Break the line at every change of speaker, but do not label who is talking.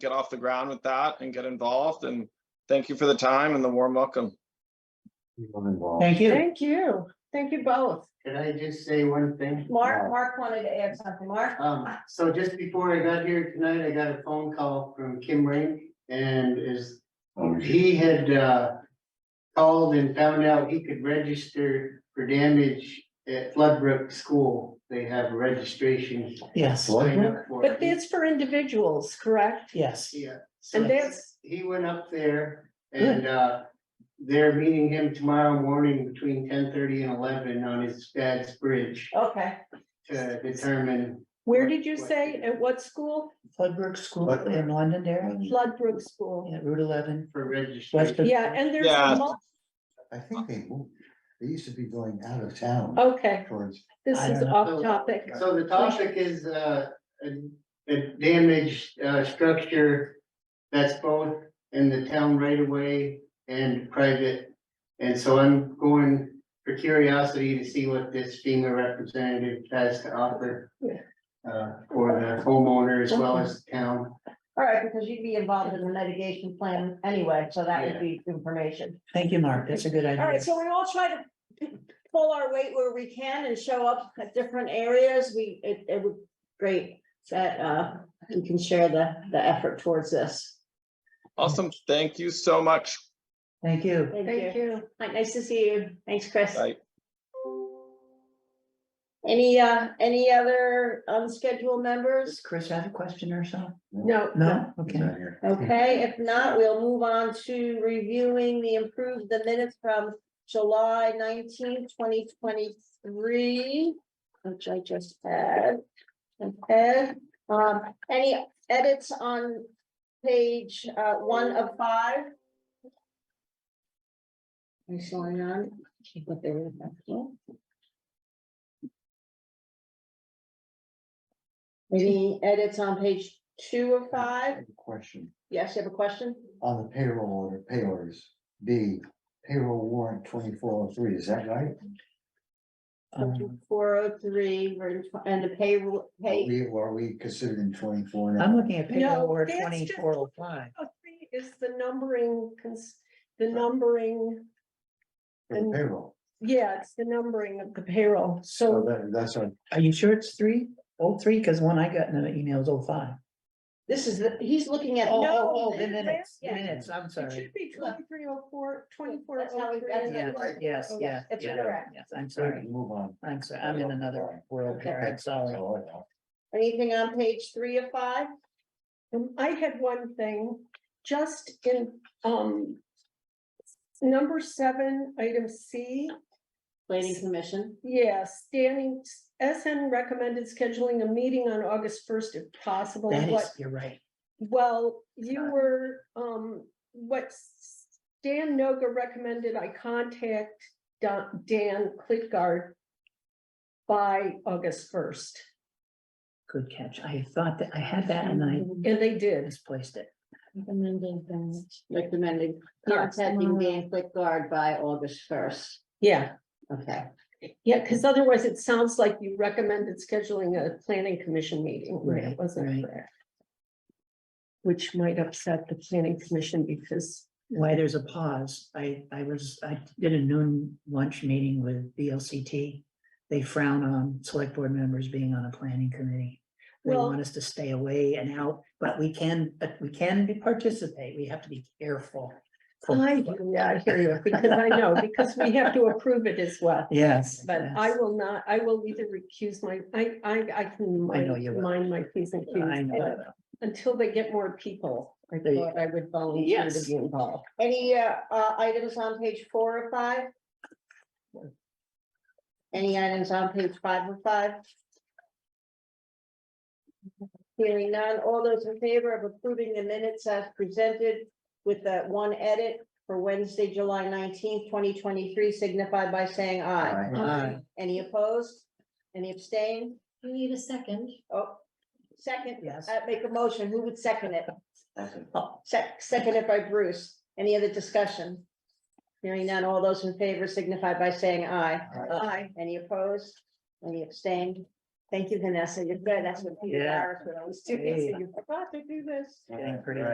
get off the ground with that and get involved. And thank you for the time and the warm welcome.
people involved.
Thank you.
Thank you. Thank you both.
Can I just say one thing?
Mark, Mark wanted to add something, Mark.
Um, so just before I got here tonight, I got a phone call from Kim Ring and is, he had, uh. Called and found out he could register for damage at Floodbrook School. They have registration.
Yes,
sign up for it.
But that's for individuals, correct?
yes.
Yeah. so
And that's,
He went up there and, uh, they're meeting him tomorrow morning between ten thirty and eleven on his dad's bridge
Okay,
to determine.
where did you say, at what school?
Floodbrook School
What?
in Londonderry,
Floodbrook School.
yeah, Route eleven.
For
West
registration.
of-
Yeah, and there's,
Yeah.
a mul-
I think they moved, they used to be going out of town
Oh,
okay,
towards,
this
I
is
don't know.
off topic.
So the topic is, uh, a, a damaged, uh, structure that's both in the town right away and private. And so I'm going for curiosity to see what this FEMA representative has to offer.
Yeah.
Uh, for the homeowner as well as the town.
all right, because you'd be involved in the mitigation plan anyway, so that would be information.
Thank you, Mark. That's a good
All
idea.
right, so we all try to pull our weight where we can and show up at different areas. We, it, it would, great that, uh, you can share the, the effort towards this.
Awesome. Thank you so much.
Thank you.
Thank
Thank
you.
you.
Right, Nice to see you. Thanks, Chris.
Bye.
Any, uh, any other unscheduled members?
Does Chris have a question or so?
No.
No? Okay.
down here.
Okay, if not, we'll move on to reviewing the improved, the minutes from July nineteenth, twenty twenty-three, which I just had. Okay, um, any edits on page, uh, one of five? I'm showing on. what they were asking. Any edits on page two of
I
five?
have a Question,
Yes, you have a question?
on the payroll order, payors, B, payroll warrant twenty-four oh three, is that right?
Um,
Four oh three, and the payroll,
Are
pay.
we, are we considered in twenty-four
I'm
now?
looking at
No,
payroll order
that's just-
twenty-four oh five.
Oh, three Is the numbering, cons- the numbering,
For the payroll,
yeah, it's the numbering of the payroll.
so
So
that, that's our,
Are you sure it's three? Oh, three, because one I got in the email is oh five.
this is the, he's looking at.
Oh,
no,
oh, oh, the
that's-
minutes, the
yeah.
minutes, I'm
it
sorry.
should be twenty-three oh four, twenty-four
That's how
oh
we- that's
three.
how-
Yes, yes,
Oh,
yeah.
yes, it's
yeah,
correct.
Yes, I'm
sorry,
sorry.
move on.
I'm sorry. I'm in another world here. I'm sorry.
So, uh,
Anything on page three of five?
Um, I had one thing, just in, um, number seven, item C.
Planning Commission,
Yes, standing, SN recommended scheduling a meeting on August first if possible.
That
What-
is, you're right.
Well, you
Scott.
were, um, what Stan Noga recommended, I contact Don- Dan Klitgaard by August first,
Good catch. I thought that I had that and I
and they did.
misplaced it.
recommending things, recommending contacting Dan Clickguard by August first.
Yeah,
Okay,
yeah, because otherwise it sounds like you recommended scheduling a planning commission meeting. when it
Right,
Wasn't
right.
correct. Which might upset the planning commission because,
Why there's a pause. I, I was, I did a noon lunch meeting with BLCT. They frown on select board members being on a planning committee. They
Well-
want us to stay away and out, but we can, but we can be- participate. We have to be careful.
I, yeah, I hear you, because I know, because we have to approve it as well.
Yes.
But I
yes.
will not, I will either recuse my, I, I, I can
I know you
mind
will.
mind my Ps and
I know.
Qs.
that.
Until they get more people, I
There you
thought I would volunteer to
Yes.
be involved.
any, uh, uh, items on page four of five? Any items on page five of five? Hearing none, all those in favor of approving the minutes as presented with that one edit for Wednesday, July nineteenth, twenty twenty-three, signify by saying aye.
I-
Aye.
Any opposed? Any abstain?
We need a second.
Oh, second,
Yes.
uh, make a motion, who would second it?
okay.
Sec- seconded by Bruce, any other discussion? Hearing none, all those in favor signify by saying aye.
Aye.
Any opposed? Any abstained? Thank you, Vanessa. You're good. That's what Peter
Yeah.
Harris would always do. He said, You forgot to do this.
Getting pretty